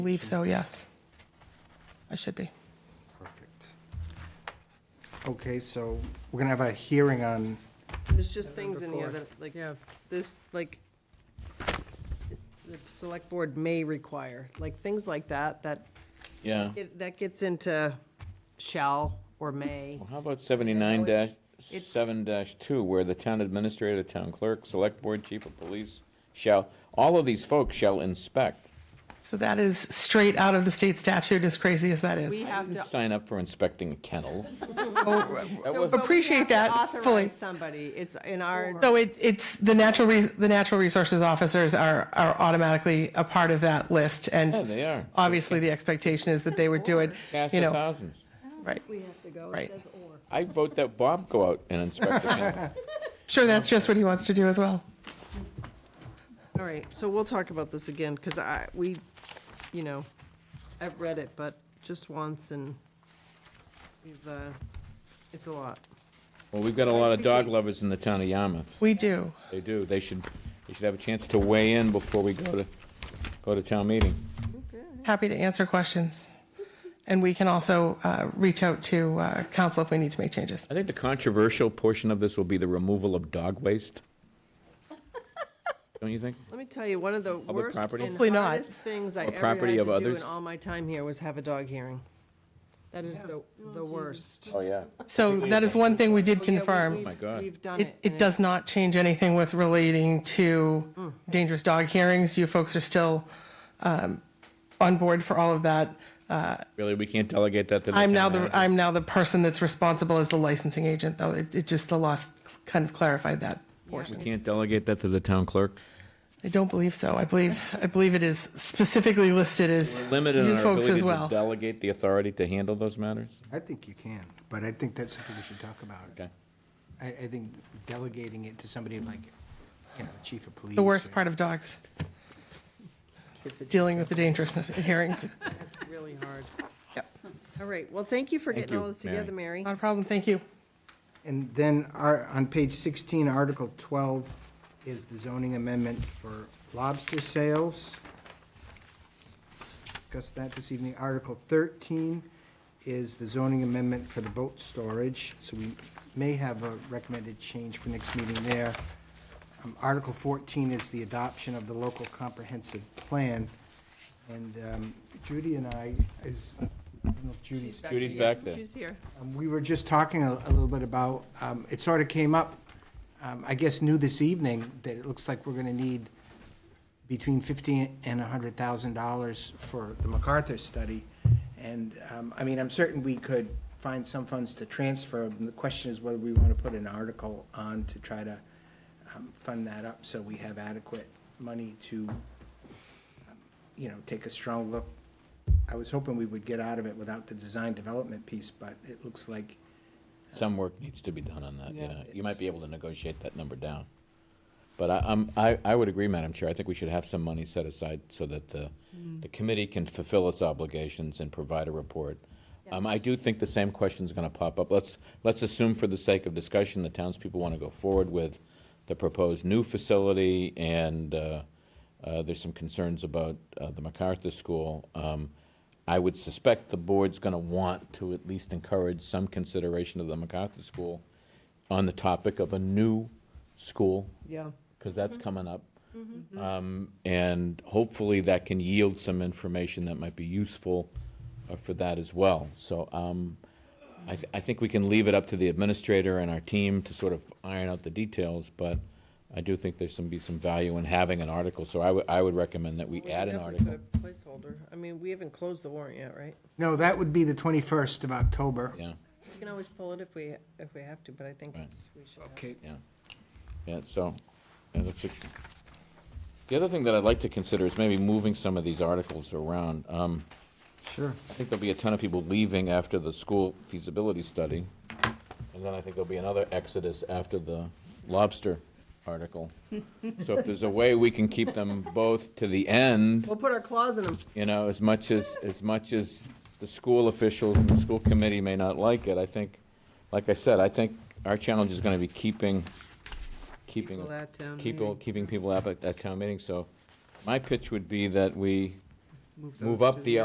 believe so, yes. I should be. Perfect. Okay, so we're gonna have a hearing on, There's just things in here that, like, this, like, the select board may require, like, things like that, that, Yeah. it- that gets into shall or may. Well, how about seventy-nine dash, it's- it's- seven dash two, where the town administrator, town clerk, select board, chief of police shall, all of these folks shall inspect. So that is straight out of the state statute, as crazy as that We is. have to. Sign up for inspecting kennels. so- was- but we Appreciate have to that fully. Authorize somebody, it's in our, So it, it's, the natural, re- the natural resources officers are, are automatically a part of that list, and. Yeah, Oh, they are. Uh, Obviously, the expectation is that they would do it, Cast you of know, thousands. right. We have to go, Right. it says or. I vote that Bob go out and inspect the kennels. Sure, that's just what he wants to do as well. all right, so we'll talk about this again, because I, we, you know, I've read it, but just once, and we've, uh, it's a lot. Well, we've got a lot of dog lovers in the town of Yarmouth. We do. They do. They should, they should have a chance to weigh in before we go to, go to town meeting. Happy to answer questions. And we can also uh, reach out to uh, council if we need to make changes. I think the controversial portion of this will be the removal of dog waste. Don't you think? Let me tell you, one of the Public worst property? and Hopefully not. hardest things I Or ever had property to of do in others? all my time here was have a dog hearing. That is the, the worst. Oh, yeah. So that is one thing we did Yeah, we- confirm. we've- Oh my God. We've done It, it. it and does it's- not change anything with relating to dangerous dog hearings. You folks are still um, on board for all of that. Really, we can't delegate that to the I'm town now the, manager? I'm now the person that's responsible as the licensing agent, though. It, it just, the law s- kind of clarified that portion. We can't delegate that to the town clerk? I don't believe so. I believe, I believe it is specifically listed as Limited in you our folks ability as to well. delegate the authority to handle those matters? I think you can, but I think that's something we should talk about. Okay. I, I think delegating it to somebody like, you know, the chief of police. The worst part of dogs, dealing with the dangerousness of hearings. It's really hard. Yep. All right, well, thank you for Thank getting all you, this together, Mary. Not a problem. Thank you. And then our, on page sixteen, Article twelve is the zoning amendment for lobster sales. Discussed that this evening. Article thirteen is the zoning amendment for the boat storage, so we may have a recommended change for next meeting there. Um, Article fourteen is the adoption of the local comprehensive plan. And um, Judy and I, is, I don't know if Judy's Judy's back there. She's here. um, We were just talking a a little bit about, um, it sort of came up, um, I guess new this evening, that it looks like we're going to need between 15 and 100,000 dollars for the MacArthur study. And, um, I mean, I'm certain we could find some funds to transfer. And The question is whether we want to put an article on to try to um, fund that up so we have adequate money to, um, you know, take a strong look I was hoping we would get out of it without the design development piece, but it looks like, Some work needs to be done on that, yeah. You might be able to negotiate that number down. But I, I'm, I, I would agree, Madam Chair, I think we should have some money set aside so that the, the committee can fulfill its obligations and provide a report. Um, I do think the same question's gonna pop up. Let's, let's assume for the sake of discussion, the townspeople wanna go forward with the proposed new facility and, uh, uh, there's some concerns about, uh, the MacArthur School. Um, I would suspect the board's gonna want to at least encourage some consideration of the MacArthur School on the topic of a new school Yeah. because that's coming up. Um, and hopefully that can yield some information that might be useful uh, for that as well. So um, I, th- I think we can leave it up to the administrator and our team to sort of iron out the details, but I do think there's some, be some value in having an article. So I would- I would recommend that we add an article. Placeholder. I mean, we haven't closed the warrant yet, right? no, that would be the 21st of October. Yeah, We can always pull it if we, if we have to, but I think it's, we should. have- Okay. yeah. Yeah, so, yeah, that's it. The other thing that I'd like to consider is maybe moving some of these articles around. Um, Sure. I think there'll be a ton of people leaving after the school feasibility study. And then I think there'll be another exodus after the lobster article. So if there's a way we can keep them both to the end, We'll put our claws in them. you know, as much as, as much as the school officials and the school committee may not like it, I think, like I said, I think our challenge is gonna be keeping, keeping. People at town People, keeping people up at, at town meeting, so my pitch would be that we move those Move to up the